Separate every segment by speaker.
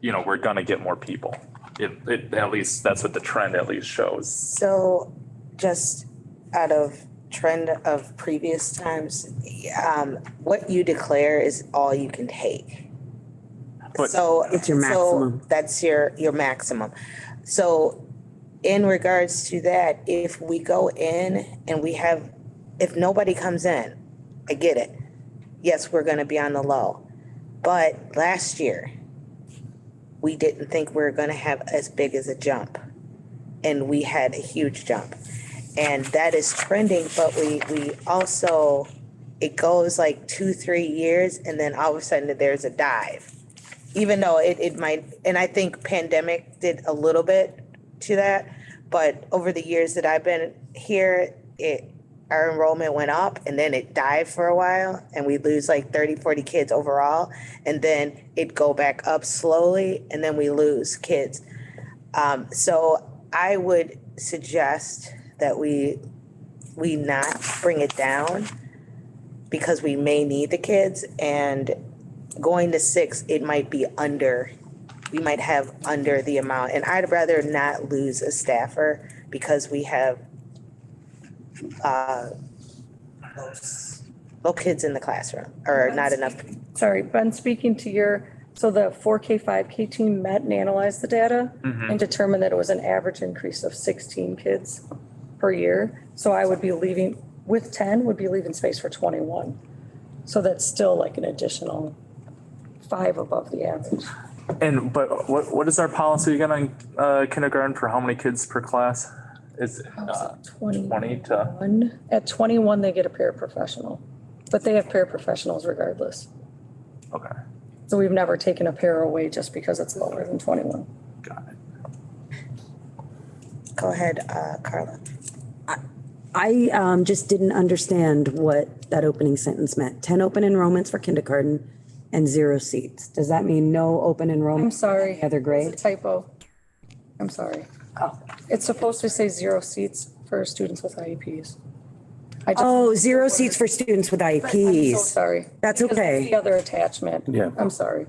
Speaker 1: you know, we're gonna get more people. It, it, at least, that's what the trend at least shows.
Speaker 2: So just out of trend of previous times, um, what you declare is all you can take.
Speaker 1: But-
Speaker 2: So.
Speaker 3: It's your
Speaker 2: so
Speaker 3: maximum.
Speaker 2: That's your, your maximum. So in regards to that, if we go in and we have, if nobody comes in, I get it. Yes, we're gonna be on the low. But last year, we didn't think we were gonna have as big as a jump and we had a huge jump. And that is trending, but we, we also, it goes like two, three years and then all of a sudden there's a dive. Even though it, it might, and I think pandemic did a little bit to that, but over the years that I've been here, it, our enrollment went up and then it dived for a while and we lose like 30, 40 kids overall. And then it go back up slowly and then we lose kids. Um, so I would suggest that we, we not bring it down because we may need the kids and going to six, it might be under, we might have under the amount. And I'd rather not lose a staffer because we have uh, low s- low kids in the classroom or not enough.
Speaker 4: Sorry, Ben, speaking to your, so the four K, five K team met and analyzed the data
Speaker 1: Mm-hmm.
Speaker 4: and determined that it was an average increase of sixteen kids per year. So I would be leaving, with ten, would be leaving space for twenty-one. So that's still like an additional five above the average.
Speaker 1: And, but what, what is our policy again on, uh, kindergarten for how many kids per class? Is, it, uh, twenty to,
Speaker 4: Twenty-one, at twenty-one, they get a paraprofessional, but they have paraprofessionals regardless.
Speaker 1: okay,
Speaker 4: So we've never taken a pair away just because it's lower than twenty-one.
Speaker 1: got it.
Speaker 2: Go ahead, uh, Carla.
Speaker 3: I um, just didn't understand what that opening sentence meant. 10 open enrollments for kindergarten and zero seats. Does that mean no open
Speaker 4: I'm
Speaker 3: enrollment?
Speaker 4: sorry.
Speaker 3: Other grade? Oh.
Speaker 4: It's a typo. I'm sorry. It's supposed to say zero seats for students with IEPs. I just-
Speaker 3: Oh, zero seats for students with
Speaker 4: I'm so
Speaker 3: IEPs.
Speaker 4: Sorry.
Speaker 3: That's
Speaker 4: Because
Speaker 3: okay.
Speaker 4: The other attachment. Yeah. I'm sorry.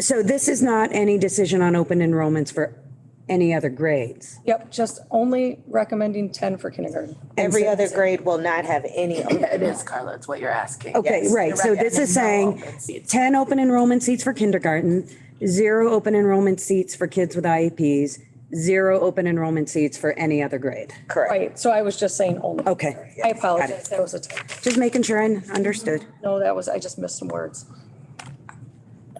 Speaker 3: So this is not any decision on open enrollments for any other grades.
Speaker 4: Yep, just only recommending ten for kindergarten.
Speaker 2: Every other grade will not have any.
Speaker 5: It is, Carla, it's what you're asking.
Speaker 3: Okay,
Speaker 2: Yes,
Speaker 3: right.
Speaker 2: you're
Speaker 3: So
Speaker 2: right.
Speaker 3: this is saying
Speaker 5: It's-
Speaker 3: 10 open enrollment seats for kindergarten, zero open enrollment seats for kids with IEPs, zero open enrollment seats for any other grade.
Speaker 2: Correct.
Speaker 4: Right, so I was just saying only.
Speaker 3: Okay.
Speaker 4: I apologize. That was a typo.
Speaker 3: Just making sure I understood.
Speaker 4: No, that was, I just missed some words.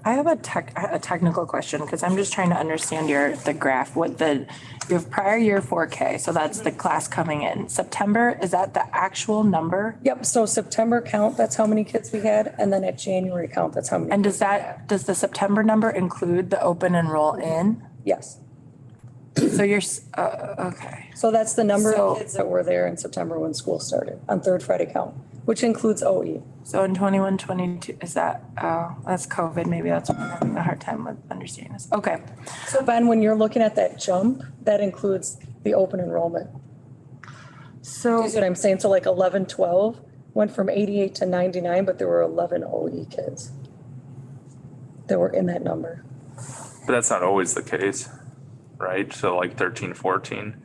Speaker 5: I have a tech, a technical question, because I'm just trying to understand your, the graph, what the, you have prior year four K, so that's the class coming in. September, is that the actual number?
Speaker 4: Yep, so September count, that's how many kids we had, and then at January count, that's how many.
Speaker 5: And does that, does the September number include the open and roll in?
Speaker 4: Yes.
Speaker 5: So you're, s- uh, okay.
Speaker 4: So that's the number of
Speaker 5: So-
Speaker 4: kids that were there in September when school started, on third Friday count, which includes E. OE.
Speaker 5: So in 21, 22, is that, oh, that's COVID, maybe that's why I'm having a hard time with understanding this. Okay.
Speaker 4: So Ben, when you're looking at that jump, that includes the open enrollment.
Speaker 5: So.
Speaker 4: You see what I'm saying? So like 11, 12 went from 88 to 99, but there were 11 OE kids that were in that number.
Speaker 1: But that's not always the case, right? So like thirteen, fourteen,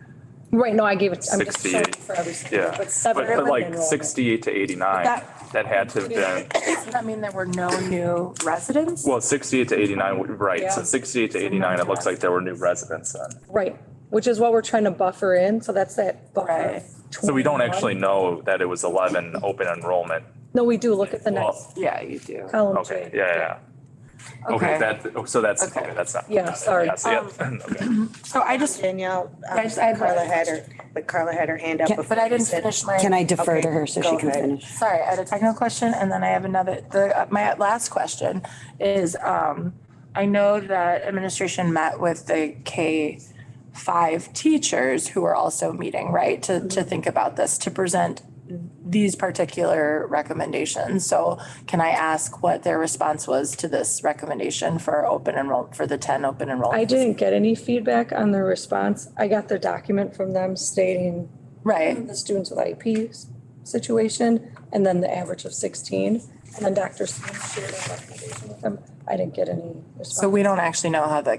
Speaker 4: Right, no, I gave it, I'm just showing
Speaker 1: 68.
Speaker 4: for every school,
Speaker 1: yeah.
Speaker 4: but seven
Speaker 1: But
Speaker 4: open
Speaker 1: like
Speaker 4: enrollment.
Speaker 1: sixty-eight to eighty-nine,
Speaker 5: That-
Speaker 1: that had to have been,
Speaker 5: Does that mean there were no new residents?
Speaker 1: well, sixty-eight to eighty-nine, right, so
Speaker 4: Yeah.
Speaker 1: sixty-eight to eighty-nine, it looks like there were new residents then.
Speaker 4: Right, which is what we're trying to buffer in, so that's that buffer.
Speaker 5: Right.
Speaker 1: So we don't
Speaker 4: 21.
Speaker 1: actually know that it was eleven open enrollment.
Speaker 4: No, we do, look at the
Speaker 1: Well,
Speaker 4: next
Speaker 5: Yeah, you do.
Speaker 4: column.
Speaker 1: Okay,
Speaker 4: Jay.
Speaker 1: yeah, yeah, yeah. Okay,
Speaker 5: Okay.
Speaker 1: that, oh, so that's,
Speaker 5: Okay.
Speaker 1: okay, that's not.
Speaker 4: Yeah, sorry.
Speaker 1: Yeah, see it? Okay.
Speaker 5: So I just,
Speaker 2: Danielle, um,
Speaker 5: I just- I have-
Speaker 2: Carla had her, but Carla had her hand up before.
Speaker 5: but I
Speaker 2: you
Speaker 5: didn't
Speaker 2: said-
Speaker 5: finish my.
Speaker 3: Can I defer to her so
Speaker 2: go
Speaker 3: she can
Speaker 2: ahead.
Speaker 3: finish?
Speaker 5: Sorry, I had a technical question and then I have another, the, uh, my last question is, um, I know that administration met with the K five teachers who are also meeting, right? To, to think about this, to present these particular recommendations. So can I ask what their response was to this recommendation for open enroll, for the ten open enrollment?
Speaker 4: I didn't get any feedback on the response. I got the document from them stating
Speaker 5: Right.
Speaker 4: the students with IEPs situation and then the average of sixteen. And then Dr. Smith shared a recommendation with them. I didn't get any response.
Speaker 5: So we don't actually know how the